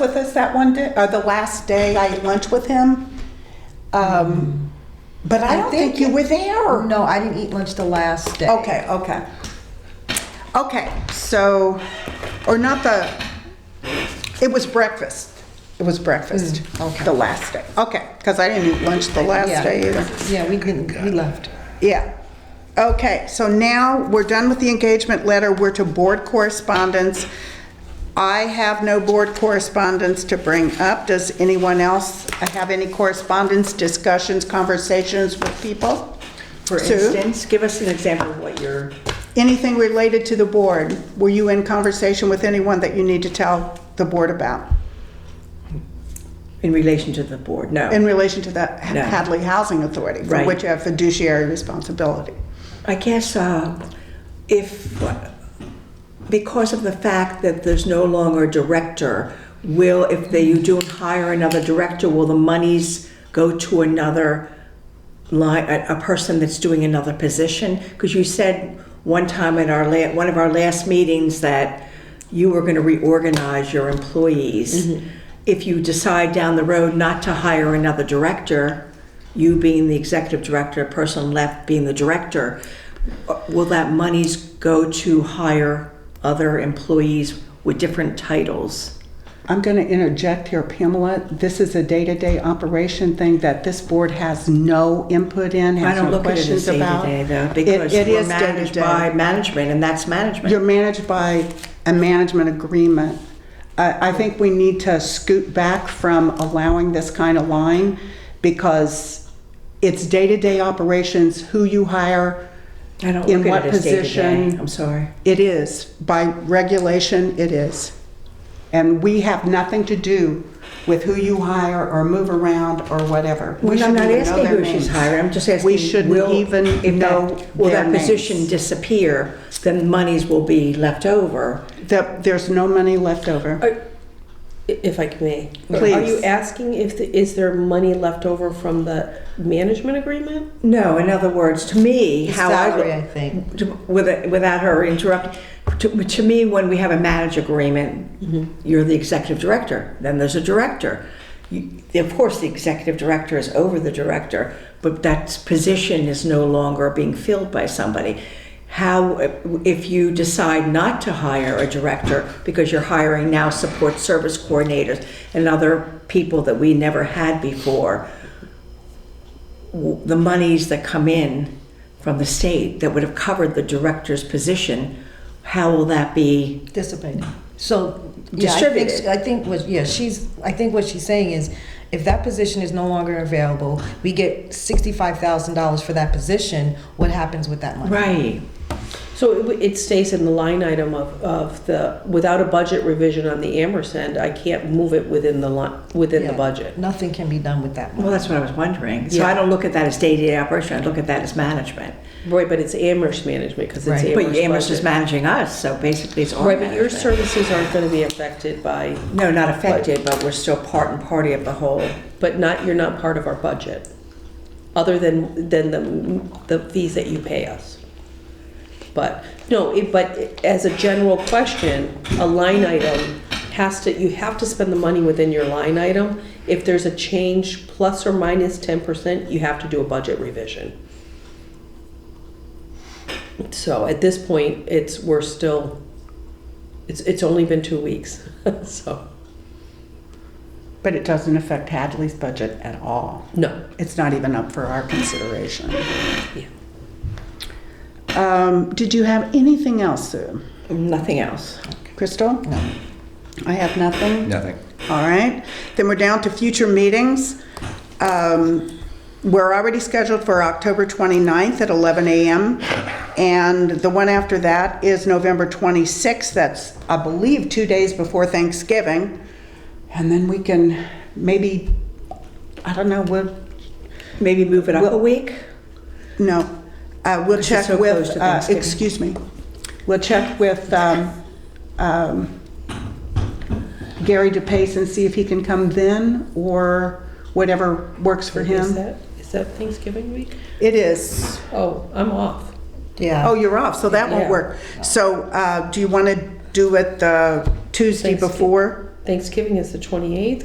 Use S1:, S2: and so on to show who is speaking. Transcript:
S1: with us that one day, or the last day I had lunch with him. Um, But I don't think you were there.
S2: No, I didn't eat lunch the last day.
S1: Okay, okay. Okay, so, or not the, it was breakfast. It was breakfast,
S2: Mm, okay.
S1: the last day. Okay, because I didn't eat lunch the last
S2: Yeah.
S1: day either.
S2: Yeah, we didn't, we left.
S1: Yeah. Okay, so now we're done with the engagement letter. We're to board correspondence. I have no board correspondence to bring up. Does anyone else have any correspondence, discussions, conversations with people?
S3: For
S1: Sue?
S3: instance, give us an example of what your,
S1: Anything related to the board? Were you in conversation with anyone that you need to tell the board about
S3: in relation to the board,
S1: in
S3: no.
S1: relation to the
S3: No.
S1: Hadley Housing Authority, for
S3: Right.
S1: which you have fiduciary responsibility?
S3: I guess uh, if, because of the fact that there's no longer a director, will, if they, you do hire another director, will the monies go to another line, a, a person that's doing another position? Because you said one time at our la, one of our last meetings that you were gonna reorganize your employees. If you decide down the road not to hire another director, you being the executive director, a person left being the director, uh, will that monies go to hire other employees with different titles?
S1: I'm going to interject here, Pamela. This is a day-to-day operation thing that this board has no input in,
S3: I
S1: has
S3: don't
S1: no
S3: look at it as
S1: questions about.
S3: day-to-day though,
S1: It-
S3: because
S1: it
S3: we're
S1: is
S3: managed
S1: day-to-day.
S3: by management, and that's
S1: You're
S3: management.
S1: managed by a management agreement. I, I think we need to scoot back from allowing this kind of line because it's day-to-day operations, who you hire,
S3: I don't
S1: in
S3: look
S1: what
S3: at it as day-to-day.
S1: position.
S3: I'm sorry.
S1: It is. By regulation, it is. And we have nothing to do with who you hire or move around or whatever. We
S3: Well, I'm
S1: shouldn't
S3: not
S1: even know
S3: asking
S1: their
S3: who she's
S1: names.
S3: hiring, I'm just asking.
S1: We shouldn't
S3: will- if
S1: even
S3: that-
S1: know
S3: Will
S1: their
S3: that position
S1: names.
S3: disappear, then monies will be left over.
S1: That there's no money left over.
S4: Are- i- If I may. Are
S1: Please.
S4: you asking if, the- is there money left over from the management agreement?
S3: No, in other words, to me, how I.
S2: Salary, I think.
S3: to- with- Without her interrupting, to, to me, when we have a manage agreement,
S2: Mm-hmm.
S3: you're the executive director, then there's a director. You- Of course, the executive director is over the director, but that position is no longer being filled by somebody. How, if you decide not to hire a director, because you're hiring now support service coordinators and other people that we never had before, w- the monies that come in from the state that would have covered the director's position, how will that be?
S2: Dissipated. So, yeah, I think,
S3: Distributed.
S2: I think what, yeah, she's, I think what she's saying is, if that position is no longer available, we get sixty-five thousand dollars for that position, what happens with that money?
S3: Right.
S4: So it w- it stays in the line item of, of the, without a budget revision on the Amherst end, I can't move it within the line, within the
S2: Yeah.
S4: budget.
S2: Nothing can be done with that money.
S3: Well, that's what I was wondering. So I
S4: Yeah.
S3: don't look at that as day-to-day operation, I look at that as management.
S4: Right, but it's Amherst management because it's
S2: Right.
S3: But Amherst
S4: Amherst
S3: is
S4: budget.
S3: managing us, so basically it's our
S4: Right, but your
S3: management.
S4: services aren't gonna be affected by,
S3: No, not affected, but we're still part and party of the whole.
S4: but not, you're not part of our budget, other than, than the, the fees that you pay us. But, no, it, but as a general question, a line item has to, you have to spend the money within your line item. If there's a change plus or minus ten percent, you have to do a budget revision. So at this point, it's, we're still, it's, it's only been two weeks, so,
S1: But it doesn't affect Hadley's budget at all.
S4: no.
S1: It's not even up for our consideration.
S4: Yeah.
S1: Um, Did you have anything else, Sue?
S3: Nothing else.
S1: Crystal? No. I have nothing?
S5: Nothing.
S1: All right, then we're down to future meetings. Um, We're already scheduled for October 29th at 11 a.m. And the one after that is November 26th, that's, I believe, two days before Thanksgiving. And then we can maybe, I don't know, we'll,
S3: Maybe move it up a week?
S1: no, uh, we'll
S3: it's
S1: check
S3: so close
S1: with,
S3: to
S1: uh,
S3: Thanksgiving.
S1: excuse me, we'll check with um, um, Gary DePace and see if he can come then, or whatever works for
S4: Is
S1: him.
S4: that, is that Thanksgiving week?
S1: It is,
S4: Oh, I'm off.
S2: Yeah.
S1: oh, you're off, so that won't
S4: Yeah.
S1: work. So uh, do you want to do it the Tuesday
S4: Thanksgiving.
S1: before?
S4: Thanksgiving is the 28th